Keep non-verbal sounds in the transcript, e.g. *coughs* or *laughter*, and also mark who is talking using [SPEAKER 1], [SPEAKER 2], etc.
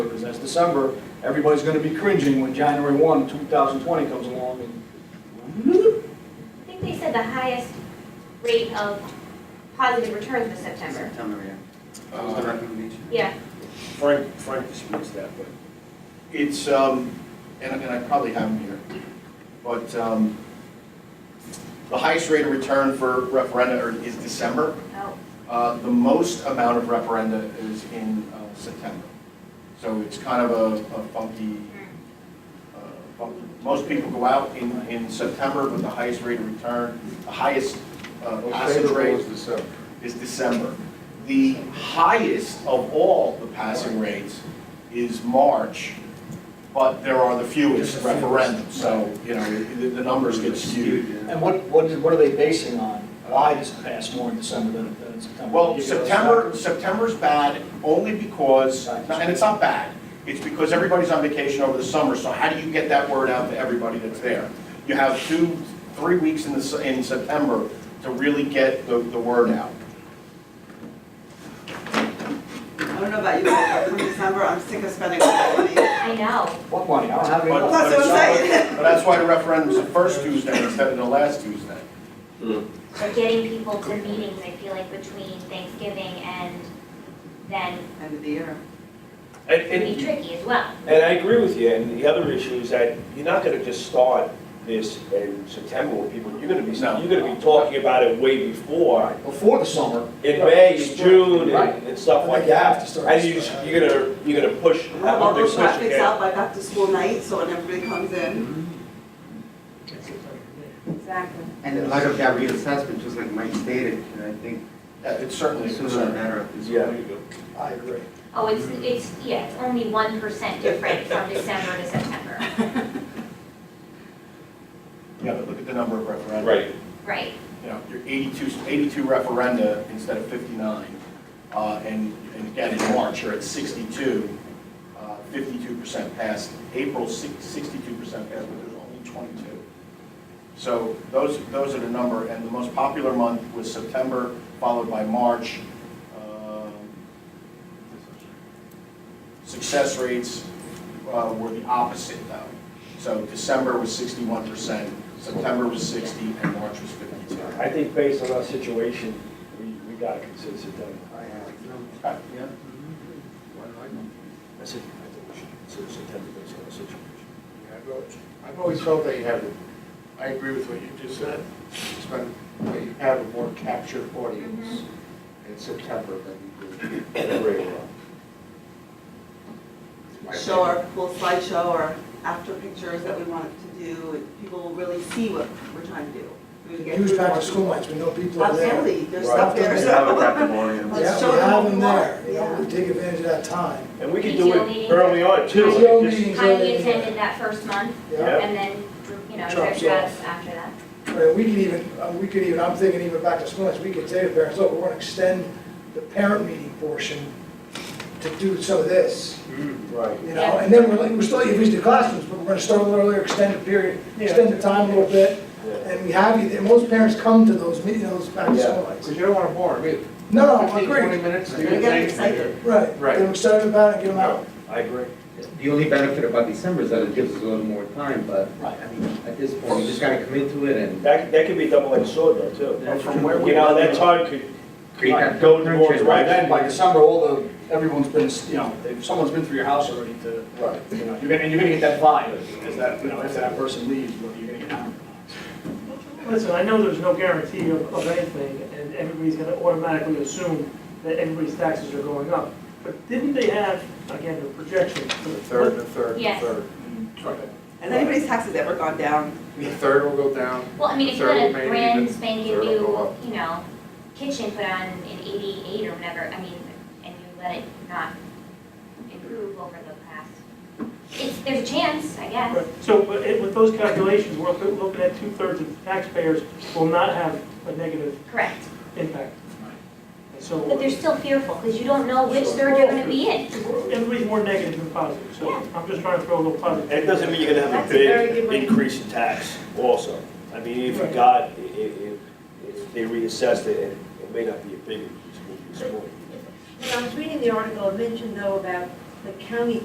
[SPEAKER 1] as December, everybody's gonna be cringing when January one, two thousand twenty comes along and
[SPEAKER 2] I think they said the highest rate of positive returns was September.
[SPEAKER 3] September, yeah. That was the recommendation.
[SPEAKER 2] Yeah,
[SPEAKER 4] Frank, Frank disputes that, but it's, um, and and I probably have them here, but um, the highest rate of return for referenda are- is December.
[SPEAKER 2] oh,
[SPEAKER 4] Uh, The most amount of referenda is in uh, September. So it's kind of a a funky, uh, funky- most people go out in, in September with the highest rate of return, the highest uh, passage rate is December. The highest of all the passing rates is March, but there are the fewest referendums, so, you know, the, the numbers get skewed.
[SPEAKER 1] And what, what, is- what are they basing on? Why does it pass more in December than, than in September?
[SPEAKER 4] Well,
[SPEAKER 1] Give us
[SPEAKER 4] September,
[SPEAKER 1] that.
[SPEAKER 4] September's bad only because, and it's not bad, it's because everybody's on vacation over the summer, so how do you get that word out to everybody that's there? You have two, three weeks in the, s- in September to really get the, the word out.
[SPEAKER 5] I don't know about you, but from December, I'm sick of spending all that money.
[SPEAKER 2] I know.
[SPEAKER 1] What money? I don't have any.
[SPEAKER 4] But-
[SPEAKER 1] money.
[SPEAKER 5] That's what I'm saying.
[SPEAKER 4] But that's why the referendum's the first Tuesday instead of the last Tuesday.
[SPEAKER 2] They're getting people to meetings, I feel like, between Thanksgiving and then
[SPEAKER 5] End of the year.
[SPEAKER 6] And,
[SPEAKER 2] it can be
[SPEAKER 6] and,
[SPEAKER 2] tricky as well.
[SPEAKER 6] and I agree with you, and the other issue is that you're not gonna just start this in September with people, you're gonna be,
[SPEAKER 4] No.
[SPEAKER 6] you're gonna be talking about it way before,
[SPEAKER 1] Before the summer.
[SPEAKER 6] in May, in June,
[SPEAKER 1] Right.
[SPEAKER 6] and, and stuff like
[SPEAKER 1] You have
[SPEAKER 6] that.
[SPEAKER 1] to start.
[SPEAKER 6] And you, you're gonna, you're gonna push,
[SPEAKER 5] I
[SPEAKER 6] have
[SPEAKER 5] have all
[SPEAKER 6] a big
[SPEAKER 5] those
[SPEAKER 6] push
[SPEAKER 5] graphics
[SPEAKER 6] again.
[SPEAKER 5] out by back to school night, so when everybody comes in. Exactly.
[SPEAKER 3] And in light of that reassessment, just like Mike stated, and I think
[SPEAKER 4] Yeah, It's certainly a
[SPEAKER 3] sooner the
[SPEAKER 4] concern.
[SPEAKER 3] better at this
[SPEAKER 6] Yeah.
[SPEAKER 3] point.
[SPEAKER 1] I agree.
[SPEAKER 2] Oh, it's, it's, yeah, it's only one percent different from December to September.
[SPEAKER 4] Yeah, but look at the number of referenda.
[SPEAKER 6] Right,
[SPEAKER 2] Right,
[SPEAKER 4] You know, you're 82, 82 referenda instead of 59. Uh, And, and again, in March, you're at 62, uh, 52% passed. April, six- 62% passed, but there's only 22. So those, those are the number, and the most popular month was September, followed by March. Um, Success rates uh, were the opposite, though. So December was 61%, September was 60, and March was 52.
[SPEAKER 7] I think based on our situation, we, we gotta consider September.
[SPEAKER 4] Okay.
[SPEAKER 7] I said, I think we should consider September based on our situation.
[SPEAKER 8] I've always- I've always felt that you have, I agree with what you just said, it's been, that you have a more captured audience in September than you do
[SPEAKER 6] *coughs*
[SPEAKER 8] in regular.
[SPEAKER 5] Show our cool slideshow or after pictures that we want to do, and people will really see what we're trying to do. We would get
[SPEAKER 8] Huge
[SPEAKER 5] through
[SPEAKER 8] back
[SPEAKER 5] more
[SPEAKER 8] to school
[SPEAKER 5] people.
[SPEAKER 8] nights, we know people are there.
[SPEAKER 5] Absolutely, there's
[SPEAKER 8] Right.
[SPEAKER 5] stuff there,
[SPEAKER 3] You have a
[SPEAKER 5] so. *laughs*
[SPEAKER 3] captive audience.
[SPEAKER 8] Yeah,
[SPEAKER 5] Let's show
[SPEAKER 8] we
[SPEAKER 5] them
[SPEAKER 8] have
[SPEAKER 5] what
[SPEAKER 8] them
[SPEAKER 5] we want.
[SPEAKER 8] there, you know, we take advantage of that time.
[SPEAKER 6] and we can do
[SPEAKER 2] PTO
[SPEAKER 6] it
[SPEAKER 2] meetings.
[SPEAKER 6] early on too.
[SPEAKER 2] Just-
[SPEAKER 8] PTO
[SPEAKER 6] Just-
[SPEAKER 8] meetings are
[SPEAKER 2] Connie
[SPEAKER 8] in there.
[SPEAKER 2] attended that first month
[SPEAKER 8] Yeah,
[SPEAKER 2] and then, you know,
[SPEAKER 8] Drops
[SPEAKER 2] dripped us after that.
[SPEAKER 8] Right, we can even, uh, we could even, I'm thinking even back to school nights, we could say to parents, look, we're gonna extend the parent meeting portion to do some of this.
[SPEAKER 7] Right.
[SPEAKER 8] You know, and then we're like, we're still, if we do classrooms, but we're gonna start a little earlier, extend the period, extend the time a little bit. And we have you, there. most parents come to those meetings, those back to school nights.
[SPEAKER 7] you don't wanna bore them
[SPEAKER 8] No, no, I agree,
[SPEAKER 7] minutes.
[SPEAKER 5] They're getting excited.
[SPEAKER 8] right.
[SPEAKER 7] Right.
[SPEAKER 8] Then we start about it, and get them out.
[SPEAKER 7] I agree.
[SPEAKER 3] The only benefit about December is that it gives us a little more time, but I mean, at this point, you just gotta commit to it and.
[SPEAKER 6] That, that could be a double-edged sword though too.
[SPEAKER 4] But From where we
[SPEAKER 6] You know, that time could,
[SPEAKER 3] Create that
[SPEAKER 6] could go towards
[SPEAKER 3] friendship.
[SPEAKER 1] By
[SPEAKER 6] right
[SPEAKER 1] then, by December, all the, everyone's been, you know, if someone's been through your house already to, you know, you're gonna, and you're gonna get that vibe, is that, you know, if that person leaves, whether you're gonna get hammered or not.
[SPEAKER 9] Listen, I know there's no guarantee of, of anything, and everybody's gonna automatically assume that everybody's taxes are going up. But didn't they have, again, the projection for the
[SPEAKER 8] Third,
[SPEAKER 9] third?
[SPEAKER 8] the third,
[SPEAKER 2] the Yes.
[SPEAKER 8] third.
[SPEAKER 5] Has anybody's taxes ever gone down?
[SPEAKER 8] The third will go down.
[SPEAKER 2] Well, I mean, if you
[SPEAKER 8] Third
[SPEAKER 2] had a
[SPEAKER 8] will maybe,
[SPEAKER 2] brand
[SPEAKER 8] but
[SPEAKER 2] spanking
[SPEAKER 8] third will go
[SPEAKER 2] new,
[SPEAKER 8] up.
[SPEAKER 2] you know, kitchen put on in eighty-eight or whatever, I mean, and you let it not improve over the past, it's, there's a chance, I guess.
[SPEAKER 9] So, but it- with those calculations, we're loo- looking at two-thirds of the taxpayers will not have a negative
[SPEAKER 2] Correct,
[SPEAKER 9] impact. And
[SPEAKER 2] but
[SPEAKER 9] so,
[SPEAKER 2] they're still fearful, because you don't know which third you're gonna be in.
[SPEAKER 9] everybody's more negative than positive, so
[SPEAKER 2] Yeah.
[SPEAKER 9] I'm just trying to throw a little positive.
[SPEAKER 6] And it doesn't mean you're gonna have a
[SPEAKER 5] That's a very
[SPEAKER 6] big
[SPEAKER 5] good way.
[SPEAKER 6] increase in tax also. I mean, if you got, i- i- if, if they reassessed it, it it may not be a big increase, it may be small.
[SPEAKER 10] When I was reading the article, it mentioned though about the county